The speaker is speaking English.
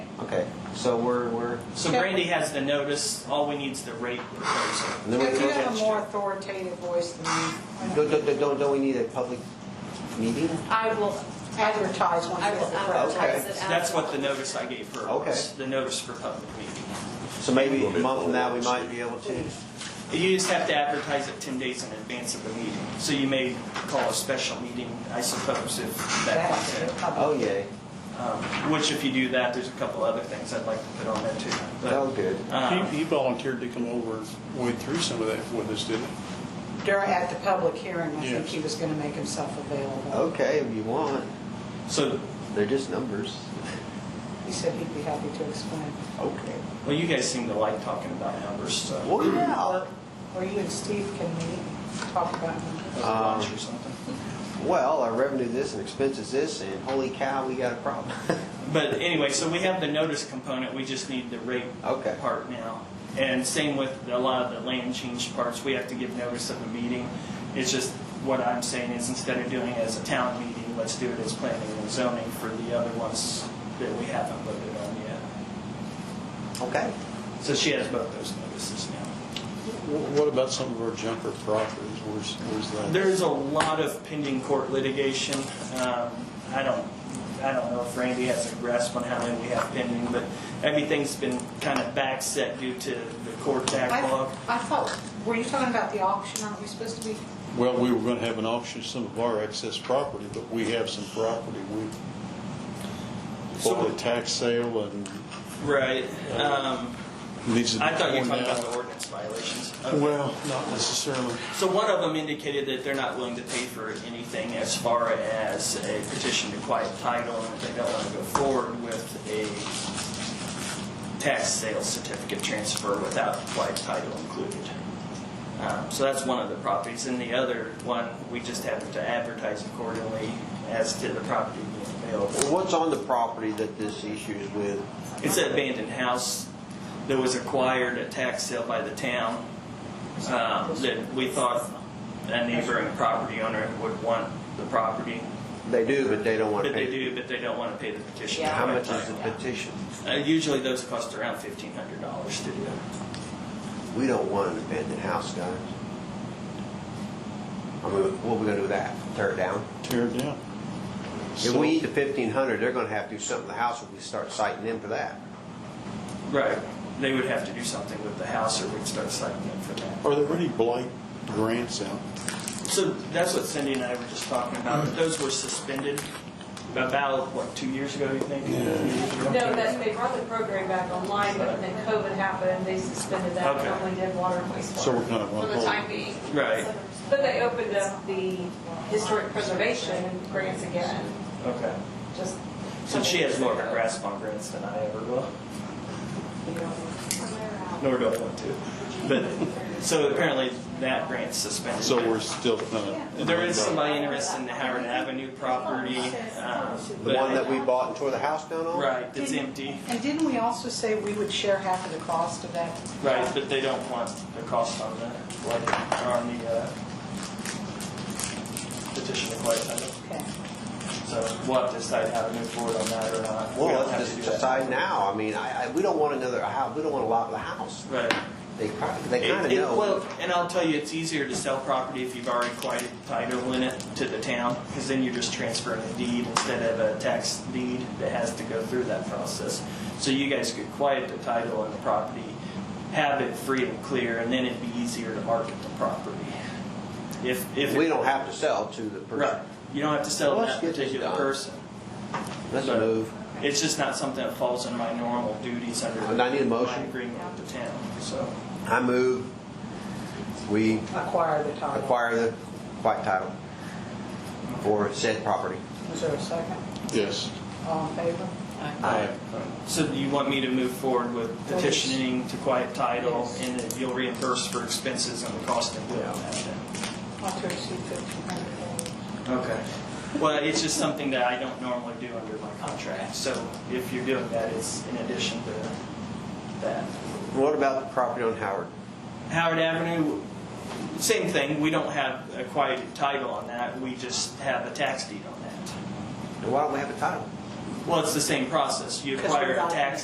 Okay, so we're, we're, So Brandy has the notice, all we need is the rate proposal. and then we're. If you have a more authoritative voice than Don't, me, don't- don't- don't- don't we need a public meeting? I will advertise when I you will Oh, get the press. advertise it. That's what the notice I gave her was, the notice for public meeting. So maybe a month from now, we might be able to. You just have to advertise it 10 days in advance of the meeting. So you may call a special meeting, I suppose, if that That's comes it. in. Oh, yay, Um, Which if you do that, there's a couple other things I'd like to put on there too. But, oh, good. um, He he volunteered to come over and wade through some of that with us, didn't During, at the public hearing, I think Yes. he was going to make himself available. Okay, if you want, So, they're just numbers. He said he'd be happy to explain. Okay. well, you guys seem to like talking about numbers, so. Well, yeah. Or you and Steve can meet, and talk about it. Lunch or something. Well, our revenue this and expenses this, and holy cow, we got a problem. But anyway, so we have the notice component, we just need the rate Okay. part now. And same with a lot of the land change parts, we have to give notice of the meeting. It's just, what I'm saying is instead of doing it as a town meeting, let's do it as planning and zoning for the other ones that we haven't voted on yet. Okay. So she has both those notices now. he? Wh- What about some of our junker properties? Where's, where's that? There's a lot of pending court litigation. Um, I don't, I don't know if Randy has a grasp on how many we have pending, but everything's been kind of back set due to the court backlog. I I thought, were you talking about the auction? Aren't we supposed to be? Well, we were going to have an auction of some of our excess property, but we have some property. We, So- for the tax sale and Right. Um, needs to be I thought you were torn talking about the down. ordinance violations. Okay. Well, not necessarily. So one of them indicated that they're not willing to pay for anything as far as a petition to quiet title, and that they don't want to go forward with a tax sale certificate transfer without quiet title included. Um, So that's one of the properties. And the other one, we just have to advertise accordingly as to the property being available. Well, what's on the property that this issue is with? It's an abandoned house that was acquired at tax sale by the town um, that we thought a neighboring property owner would want the property, They do, but they don't want to but pay. they do, but they don't want to pay the petition. How much is the petition? Uh, Usually those cost around fifteen hundred dollars to do. We don't want an abandoned house, guys. I mean, what are we gonna do with that? Tear it down? Tear it down. If we need the fifteen hundred, they're gonna have to do something to the house if we start citing them for that. Right. They would have to do something with the house or we'd start citing them for that. Are there any blight grants out? So that's what Cindy and I were just talking about. Mm-hmm. Those were suspended about, what, two years ago, you think? No, that, they brought the program back online, but then COVID happened, they suspended that, and Okay. only did water and wastewater. So we're kind of For on the hold. time being. Right. But they opened up the historic preservation grants again, Okay. just. So she has more of a grasp on grants than I ever will, But nor do I want to. But, so apparently that grant's suspended. So we're still kind of. There is somebody interested in the Howard Avenue property. um, The but- one that we bought and tore the house down on? Right, that's empty. And didn't we also say we would share half of the cost of that? Right, but they don't want the cost on the, like, on the uh, petition to quiet title. Okay. So we'll have to decide how to move forward on that or not. We Well, don't have let's just to do that. decide now. I mean, I, I, we don't want another house, we don't want a lot of the house. Right. They kind, they kind of It- it- know. Well, and I'll tell you, it's easier to sell property if you've already quieted title in it to the town, because then you're just transferring a deed instead of a tax deed that has to go through that process. So you guys could quiet the title on the property, have it free and clear, and then it'd be easier to market the property. If, if. We don't have to sell to the Right, person. you don't have to sell Well, to let's that get this particular done. person. Let's But- move. It's just not something that falls in my normal duties under. And I need a motion. My agreement with the town, so. I move, we Acquire the title. acquire the quiet title for said property. Is there a second? Yes. All in favor? Aye. So do you want me to move forward with petitioning to quiet title and that you'll reimburse for expenses and the cost of doing that then? Not to exceed fifteen hundred dollars. Okay. Well, it's just something that I don't normally do under my contract, so if you're doing that, it's in addition to that. What about the property on Howard? Howard Avenue, same thing, we don't have a quiet title on that, we just have a tax deed on that. Why don't we have a title? Well, it's the same process, you Because we're acquire a not- tax